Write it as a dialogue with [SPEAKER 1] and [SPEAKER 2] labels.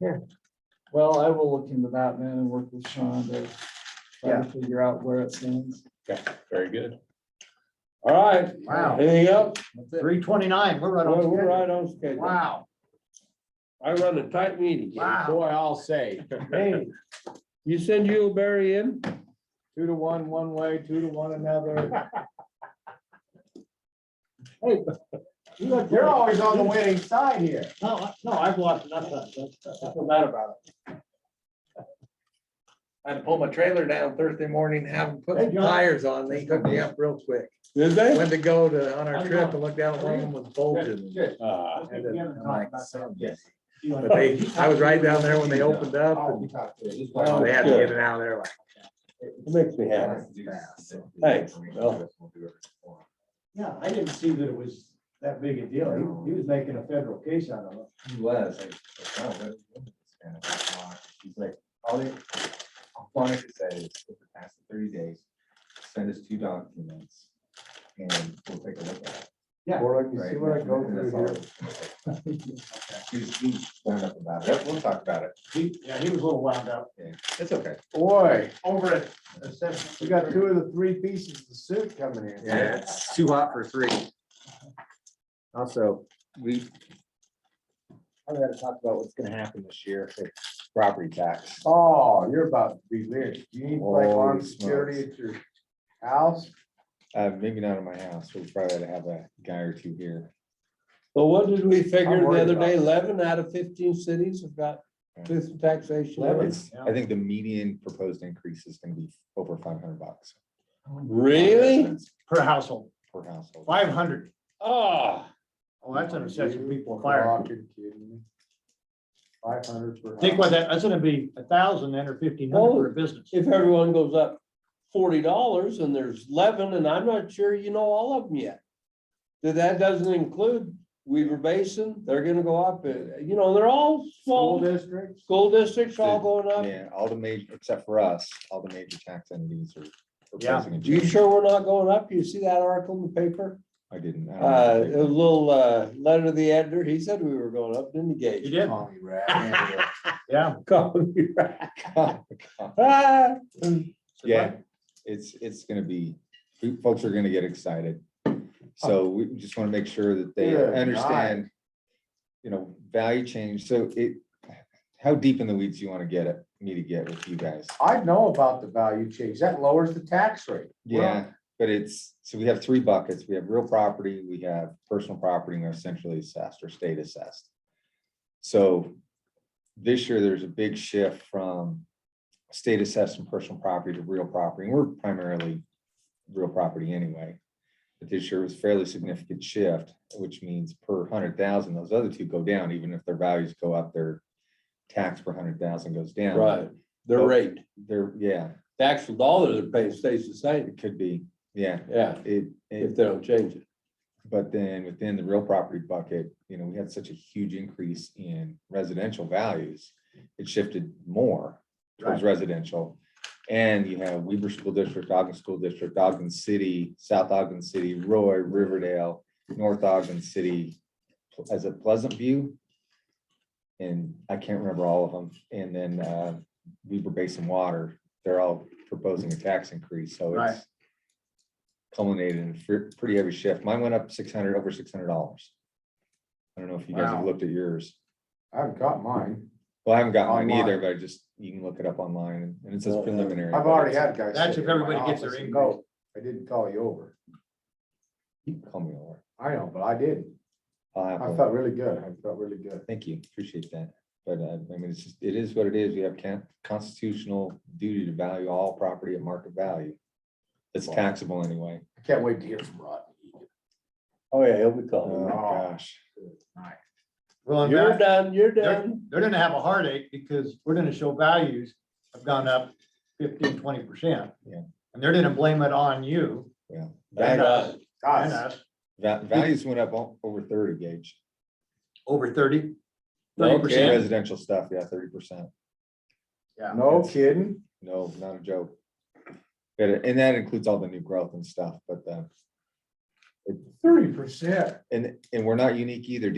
[SPEAKER 1] Well, I will look into that then and work with Sean to try
[SPEAKER 2] Yeah.
[SPEAKER 1] to figure out where it stands.
[SPEAKER 3] Very good. All right.
[SPEAKER 2] Wow.
[SPEAKER 3] Anything else?
[SPEAKER 2] Three twenty-nine, we're right on
[SPEAKER 3] Well, We're
[SPEAKER 2] schedule.
[SPEAKER 3] right on schedule.
[SPEAKER 2] Wow,
[SPEAKER 3] I run a tight meeting.
[SPEAKER 2] Wow.
[SPEAKER 4] Boy, I'll say,
[SPEAKER 1] Hey,
[SPEAKER 3] You send Barry in?
[SPEAKER 1] two to one, one way, two to one another. Hey, you look- You're always on the winning side here.
[SPEAKER 2] no, I- no, I've lost nothing.
[SPEAKER 1] I feel bad about
[SPEAKER 5] I had to pull my trailer down Thursday morning, have them put
[SPEAKER 1] Hey,
[SPEAKER 5] some
[SPEAKER 1] John.
[SPEAKER 5] tires on. They hooked me up real quick.
[SPEAKER 3] Did they?
[SPEAKER 5] Went to go to, on our
[SPEAKER 1] I'm
[SPEAKER 5] trip
[SPEAKER 1] going.
[SPEAKER 5] and looked down at one of them was bulging.
[SPEAKER 1] it.
[SPEAKER 3] Ah,
[SPEAKER 5] And then I'm like, "Son of a-" But
[SPEAKER 1] But
[SPEAKER 5] they, I was right down there when they opened up and
[SPEAKER 1] Oh,
[SPEAKER 5] they had to get it out of there like.
[SPEAKER 3] it makes me happy. Thanks. Well,
[SPEAKER 1] Yeah, I didn't see that it was that big a deal. He, he was making a federal case out of it.
[SPEAKER 6] He was. I- I don't know oh, what it was, kind of like, why. He's like, all they, all Quonic said is, if it passes thirty days, send us two documents. And we'll take a look at it.
[SPEAKER 1] Yeah.
[SPEAKER 6] Or
[SPEAKER 1] you see what I go through
[SPEAKER 6] He's, he's wound up about it. We'll talk about it.
[SPEAKER 1] He, yeah, he was a little wound up.
[SPEAKER 6] It's okay.
[SPEAKER 1] Boy, over it. We got two of the three pieces of soup coming in.
[SPEAKER 6] Yeah, it's too hot for three. Also, we.
[SPEAKER 4] I'm gonna talk about what's gonna happen this year for property tax.
[SPEAKER 1] Oh, you're about to be rich. You need like
[SPEAKER 6] Holy
[SPEAKER 1] armed security at your house.
[SPEAKER 6] Uh, maybe not in my house. We'll probably have a guy or two here.
[SPEAKER 3] what did we
[SPEAKER 1] I'm
[SPEAKER 3] figure the
[SPEAKER 1] worried
[SPEAKER 3] other
[SPEAKER 1] about
[SPEAKER 3] day?
[SPEAKER 1] it.
[SPEAKER 3] Eleven out of fifteen cities have got truth and taxation.
[SPEAKER 6] It's- I think the median proposed increase is gonna be over five hundred bucks.
[SPEAKER 3] Really?
[SPEAKER 6] Residents
[SPEAKER 2] Per household,
[SPEAKER 6] Per household.
[SPEAKER 2] five hundred.
[SPEAKER 3] Ah,
[SPEAKER 2] Oh, that's an obsession, people fire.
[SPEAKER 1] Five hundred per.
[SPEAKER 2] Think
[SPEAKER 1] house.
[SPEAKER 2] what that, that's gonna be a thousand then or fifteen
[SPEAKER 1] Oh,
[SPEAKER 2] hundred for a business.
[SPEAKER 3] if everyone goes up forty dollars and there's eleven, and I'm not sure you know all of them yet. That that doesn't include Weaver Basin, they're gonna go up, uh, you know, they're all small,
[SPEAKER 1] School districts.
[SPEAKER 3] school districts all going up.
[SPEAKER 6] Yeah, all the major, except for us, all the major tax entities are. proposing a
[SPEAKER 3] You
[SPEAKER 6] change.
[SPEAKER 3] sure we're not going up? You see that article in the paper?
[SPEAKER 6] I didn't. I don't
[SPEAKER 3] Uh,
[SPEAKER 6] know.
[SPEAKER 3] a little, uh, letter to the editor, he said we were going up, didn't he,
[SPEAKER 2] You
[SPEAKER 3] Gage?
[SPEAKER 2] did, yeah.
[SPEAKER 3] Ah,
[SPEAKER 6] Yeah, it's, it's gonna be, folks are gonna get excited. So we just wanna make sure that they
[SPEAKER 1] Good
[SPEAKER 6] understand, you know, value change. So it, how deep in the weeds you wanna get it, need to get with you guys.
[SPEAKER 1] I know about the value change. That lowers the tax rate.
[SPEAKER 6] Yeah, but it's, so we have three buckets. We have real property, we have personal property, and we're centrally assessed or state assessed. So this year, there's a big shift from state assessed and personal property to real property. And we're primarily real property anyway. But this year was fairly significant shift, which means per hundred thousand, those other two go down, even if their values go up, their tax per hundred thousand goes down.
[SPEAKER 3] Right, the rate,
[SPEAKER 6] They're, yeah,
[SPEAKER 3] the actual dollar they're paying stays the same,
[SPEAKER 6] it could be, yeah,
[SPEAKER 3] yeah,
[SPEAKER 6] it. it-
[SPEAKER 3] if they don't change it.
[SPEAKER 6] But then within the real property bucket, you know, we had such a huge increase in residential values. It shifted more towards residential. And you have Weaver School District, Ogden School District, Ogden City, South Ogden City, Roy, Riverdale, North Ogden City, as a Pleasant View. And I can't remember all of them. And then uh, Weaver Basin Water, they're all proposing a tax increase, so
[SPEAKER 2] Right.
[SPEAKER 6] it's culminated in a fr- pretty heavy shift. Mine went up six hundred, over six hundred dollars. I don't know if you guys have
[SPEAKER 1] Wow.
[SPEAKER 6] looked at yours.
[SPEAKER 1] I've got mine.
[SPEAKER 6] Well, I haven't got mine
[SPEAKER 1] Online.
[SPEAKER 6] either, but I just, you can look it up online and it says
[SPEAKER 3] Well, uh,
[SPEAKER 6] preliminary.
[SPEAKER 1] I've
[SPEAKER 6] but
[SPEAKER 1] already
[SPEAKER 6] it's-
[SPEAKER 1] had guys.
[SPEAKER 2] That's
[SPEAKER 1] sit
[SPEAKER 2] if
[SPEAKER 1] in my
[SPEAKER 2] everybody gets their
[SPEAKER 1] office and
[SPEAKER 2] increase.
[SPEAKER 1] go, I didn't call you over.
[SPEAKER 6] You can Call me over.
[SPEAKER 1] I know, but I did.
[SPEAKER 6] I'll have
[SPEAKER 1] I
[SPEAKER 6] one.
[SPEAKER 1] felt really good. I felt really good.
[SPEAKER 6] Thank you, appreciate that. But uh, I mean, it's just, it is what it is. We have can- constitutional duty to value all property at market value. It's taxable anyway.
[SPEAKER 1] I can't wait to hear from Rod.
[SPEAKER 3] Oh, yeah, he'll be
[SPEAKER 6] Oh,
[SPEAKER 3] calling.
[SPEAKER 6] my gosh.
[SPEAKER 2] Well, in
[SPEAKER 3] You're
[SPEAKER 2] fact,
[SPEAKER 3] done, you're
[SPEAKER 2] Uh, they're,
[SPEAKER 3] done.
[SPEAKER 2] they're gonna have a heartache because we're gonna show values have gone up 15, 20 percent.
[SPEAKER 6] Yeah.
[SPEAKER 2] And they're gonna blame it on you
[SPEAKER 3] And, uh,
[SPEAKER 2] and us
[SPEAKER 6] Va- Values went up o- over thirty gauge,
[SPEAKER 2] over thirty.
[SPEAKER 3] Okay.
[SPEAKER 2] 30%.
[SPEAKER 6] residential stuff, yeah, thirty percent,
[SPEAKER 2] Yeah.
[SPEAKER 1] No kidding.
[SPEAKER 6] no, not a joke. But, it- and that includes all the new growth and stuff, but, uh,
[SPEAKER 1] Thirty percent.
[SPEAKER 6] and, and we're not unique either.